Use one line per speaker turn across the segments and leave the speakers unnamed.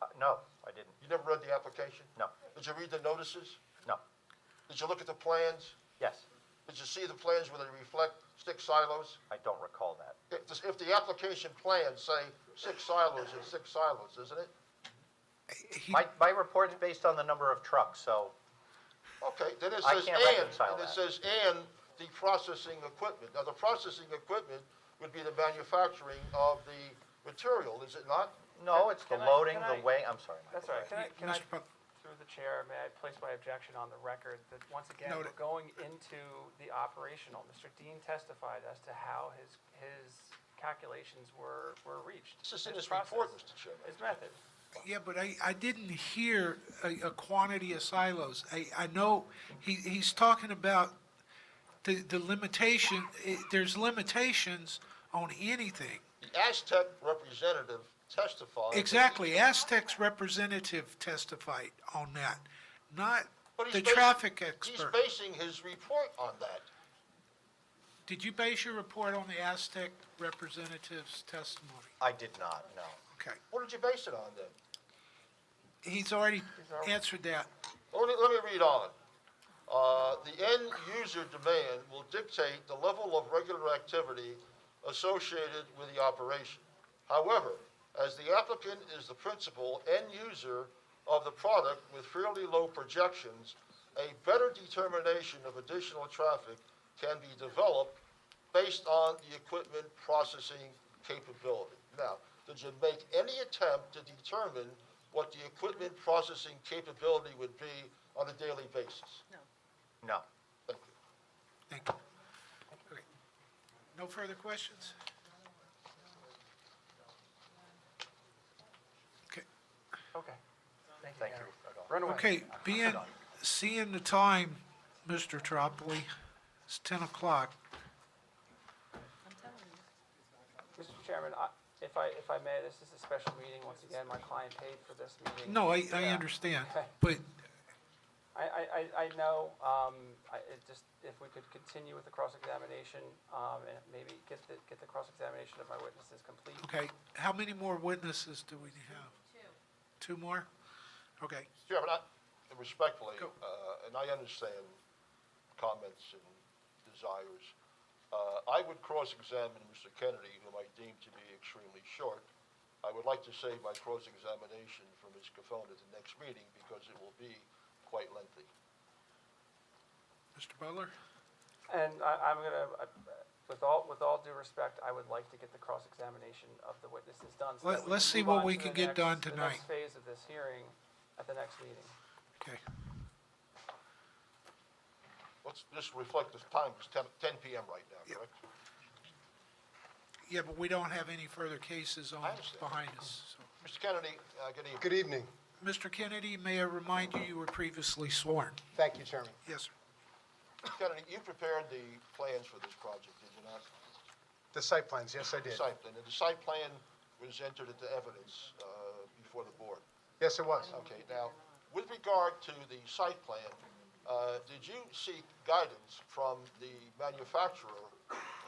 Uh, No, I didn't.
You never read the application?
No,
Did you read the notices?
no.
Did you look at the plans?
Yes,
Did you see the plans where they reflect six silos?
I don't recall that.
If, this- if the application plans say six silos, it's six silos, isn't it?
My, my report's based on the number of trucks, so,
Okay, then it
I
says
can't
and,
reconcile
and it
that.
says and the processing equipment. Now, the processing equipment would be the manufacturing of the material, is it not?
no, it's the
Can I-
loading,
can
the
I-
weighing, I'm sorry. Michael.
That's all right. Can I, can I,
Mr. Pop-
through the chair, may I place my objection on the record that, once again, we're
Noted.
going into the operational. Mr. Dean testified as to how his, his calculations were, were reached.
This is in his report,
process,
Mr. Chairman.
His method.
Yeah, but I, I didn't hear a, a quantity of silos. I, I know he, he's talking about the, the limitation, eh, there's limitations on anything.
The Aztec representative testified. that-
Exactly, Aztec's representative testified on that, not
But he's
the
bas-
traffic
He's
expert.
basing his report on that.
Did you base your report on the Aztec representative's testimony?
I did not, no.
Okay,
What did you base it on then?
he's already
already-
answered that.
Let me, let me read on. Uh, The end user demand will dictate the level of regular activity associated with the operation. However, as the applicant is the principal end user of the product with fairly low projections, a better determination of additional traffic can be developed based on the equipment processing capability. Now, did you make any attempt to determine what the equipment processing capability would be on a daily basis?
No,
Thank you.
Thank you. Okay. No further questions? Okay.
Okay.
thank you.
Run away.
Okay, being, seeing the time, Mr. Tropoli, it's 10 o'clock.
Mr. Chairman, I- if I, if I may, this is a special meeting. Once again, my client paid for this meeting.
No, I, I
Yeah.
understand,
Okay.
but
I, I, I- I know, um, I, it just, if we could continue with the cross-examination, um, and maybe get the, get the cross-examination of my witnesses complete.
Okay, how many more witnesses do we have? Two. Two more? Okay,
Chairman, I, respectfully,
Go.
uh, and I understand comments and desires, uh, I would cross-examine Mr. Kennedy, whom I deem to be extremely short. I would like to save my cross-examination for Ms. Cofone at the next meeting, because it will be quite lengthy.
Mr. Butler?
And I, I'm gonna, I- with all, with all due respect, I would like to get the cross-examination of the witnesses done. so that
Let-
we
let's
can
see
move
what
on
we
to
can
the
get
next-
done
The next
tonight.
phase of this hearing at the next meeting.
Okay,
Let's just reflect the time, it's 10 10 PM right now,
Yep.
correct?
yeah, but we don't have any further cases on,
I understand.
behind us, so.
Mr. Kennedy, uh, good evening.
Good evening.
Mr. Kennedy, may I remind you, you were previously sworn?
Thank you, Chairman.
Yes, sir.
Mr. Kennedy, you prepared the plans for this project, did you not?
The site plans, yes, I did.
Site plan, and the site plan was entered into evidence uh, before the board.
Yes, it was.
Okay, now, with regard to the site plan, uh, did you seek guidance from the manufacturer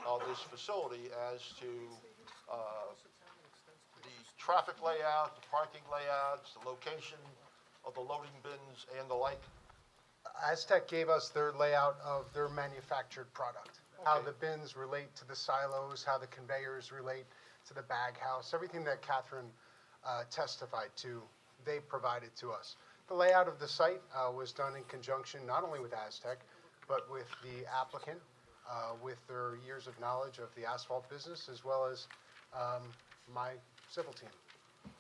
of this facility as to uh, the traffic layout, the parking layouts, the location of the loading bins and the like?
Aztec gave us their layout of their manufactured product, how
Okay.
the bins relate to the silos, how the conveyors relate to the bag house, everything that Catherine uh, testified to, they provided to us. The layout of the site uh, was done in conjunction not only with Aztec, but with the applicant, uh, with their years of knowledge of the asphalt business, as well as um, my civil team.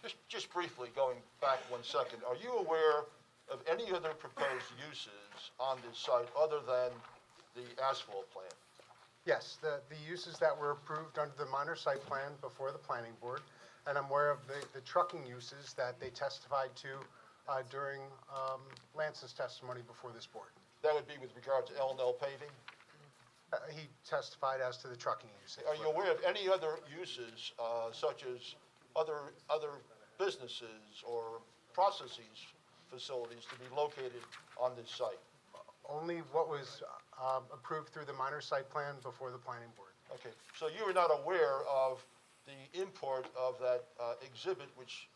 Just, just briefly, going back one second, are you aware of any other proposed uses on this site other than the asphalt plant?
Yes, the, the uses that were approved under the minor site plan before the planning board, and I'm aware of the, the trucking uses that they testified to uh, during um, Lance's testimony before this board.
That would be with regard to L and L paving?
Uh, He testified as to the trucking uses.
Are you aware of any other uses, uh, such as other, other businesses or processes, facilities to be located on this site?
Only what was um, approved through the minor site plan before the planning board.
Okay, so you were not aware of the import of that uh, exhibit which